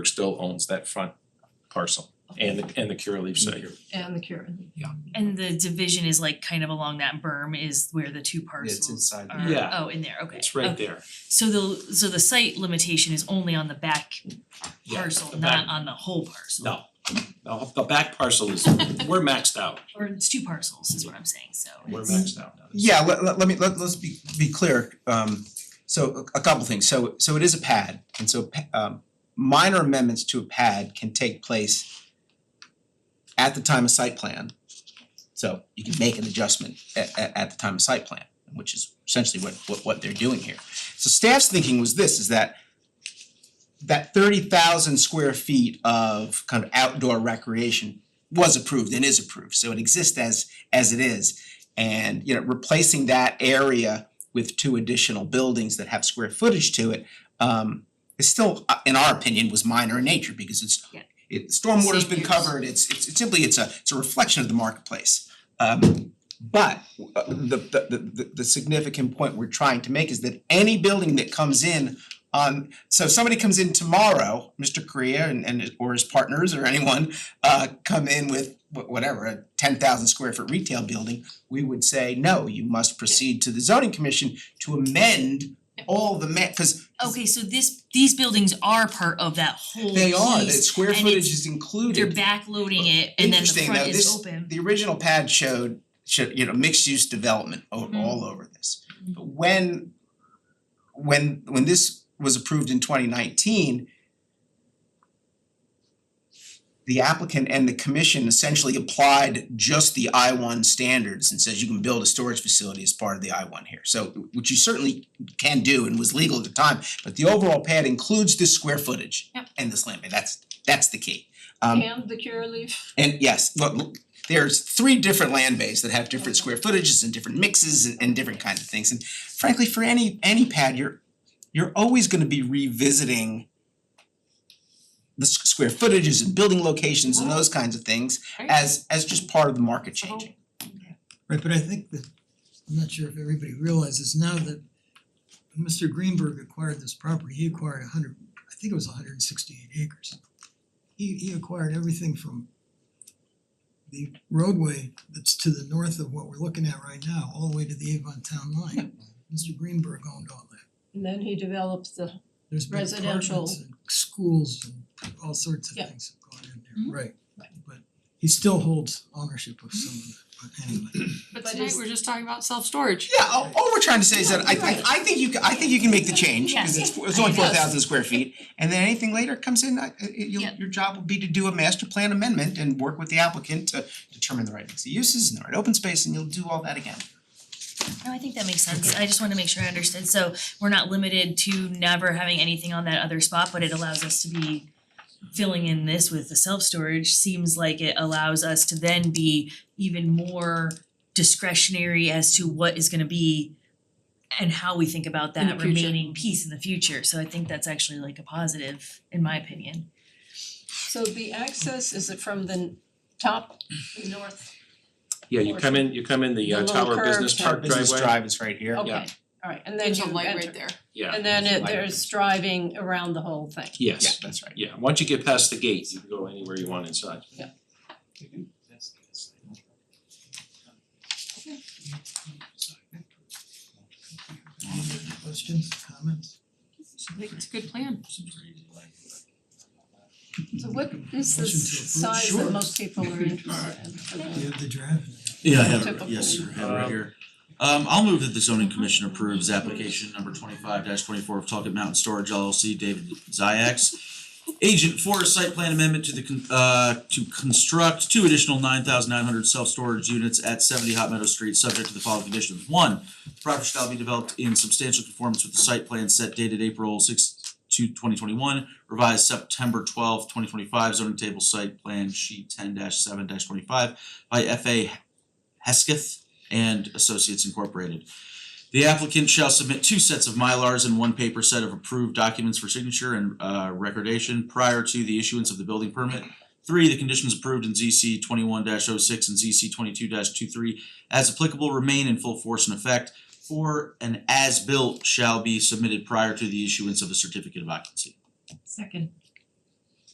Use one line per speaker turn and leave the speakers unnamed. still owns that front parcel and and the Curaleaf site.
And the cure.
And the division is like kind of along that berm is where the two
It's
parcels
inside
are,
the,
Yeah.
oh, in there, okay.
It's right
okay.
there.
So the, so the site limitation is only on the back
Yeah, the
parcel,
back-
not on the whole parcel.
No, no, the back parcel is, we're maxed out.
Or it's two parcels is what I'm saying, so
We're
it's-
maxed out now.
yeah, let let let me, let let's be be clear, um so a a couple things, so so it is a pad, and so pa- um minor amendments to a pad can take place at the time of site plan. So you can make an adjustment at at at the time of site plan, which is essentially what what what they're doing here. So staff's thinking was this, is that that thirty thousand square feet of kind of outdoor recreation was approved and is approved, so it exists as as it is. And you know, replacing that area with two additional buildings that have square footage to it, um is still, uh, in our opinion, was minor in nature because it's
Yeah.
it stormwater's
Same
been
use.
covered, it's it's it's simply, it's a it's a reflection of the marketplace. Um but uh, the the the- the the significant point we're trying to make is that any building that comes in on, so if somebody comes in tomorrow, Mr. Korea and and or his partners or anyone uh come in with wh- whatever, a ten thousand square foot retail building, we would say, no, you must proceed to the zoning commission to amend all the ma- cause
Okay, so this, these buildings are part of that whole
they are, the
piece,
square
and it's-
footage is
They're
included.
backloading it and then the
Interesting,
front
though,
is
this-
open.
The original pad showed showed, you know, mixed use development o-
Mhm.
all over this.
Mhm.
But when when when this was approved in twenty nineteen, the applicant and the commission essentially applied just the I one standards and says you can build a storage facility as part of the I one here. So which you certainly can do and was legal at the time, but the overall pad includes this square footage
Yep.
and this land, bay. that's that's the key. Um
And the cure leaf.
and yes, look, look, there's three different land bases that have different square footages and different mixes and and different kinds of things. And frankly, for any any pad, you're you're always gonna be revisiting the s- square footages and building locations and those kinds of things as as just part of the market changing.
Right, but I think that, I'm not sure if everybody realizes now that Mr. Greenberg acquired this property, he acquired a hundred, I think it was hundred and sixty-eight acres. He he acquired everything from the roadway that's to the north of what we're looking at right now, all the way to the Avon town line. Mr. Greenberg owned all that.
And then he develops the,
There's been
Residential.
apartments and schools and all sorts of
Yeah. Mm-hmm.
things have gone in
Mhm.
there, right? But he still holds ownership of some of it, but anyway.
But
But
tonight
is-
we're just talking about self-storage.
Yeah, all all we're trying to say is that I I I think you ca- I think you can make the change because it's it's only
Yes.
four thousand square feet. And then anything later comes in, I I- you'll-
Yeah.
your job will be to do a master plan amendment and work with the applicant to determine the right mix of uses and the right open space and you'll do all that again.
No, I think that makes sense. I just wanna make sure I understood. So we're not limited to never having anything on that other spot, but it allows us to be filling in this with the self-storage seems like it allows us to then be even more discretionary as to what is gonna be and how we think about
In the
that
future.
remaining piece in the future. So I think that's actually like a positive, in my opinion.
so the access, is it from the n- top, the north?
Yeah, you come in, you come in the uh,
The little
Tower
curve
Business
to-
Park driveway.
Business drive is right here.
Okay,
Yeah.
alright, and then
There's
you
a light right
enter.
there.
Yeah.
And then it,
Light.
there's driving around the whole thing.
Yeah,
Yes,
that's right.
yeah, once you get past the gate, you can go anywhere you want inside.
Questions, comments?
I think it's a good plan.
So what is the
Motion to approve.
size that
Sure.
most people are interested in for the-
You have the draft.
Yeah, I have it,
Typical.
right- yes, sir, I have it right
Um,
here. Um, I'll move that the zoning commission approves application number twenty-five twenty-four of Talkit Mountain Storage LLC, David Ziyax. Agent for a site plan amendment to the con- uh, to construct two additional nine thousand nine hundred self-storage units at seventy Hot Meadow Street, subject to the following conditions. One, the property shall be developed in substantial conformance with the site plan set dated April sixth to twenty twenty-one, revised September twelfth, twenty twenty-five, zoning table site plan sheet ten seven twenty-five by FA Hesketh and Associates Incorporated. The applicant shall submit two sets of Mylars and one paper set of approved documents for signature and uh recordation prior to the issuance of the building permit. Three, the conditions approved in ZC twenty-one 6 and ZC twenty-two 23 as applicable remain in full force and effect. Four, an as-built shall be submitted prior to the issuance of a certificate of occupancy.
Second.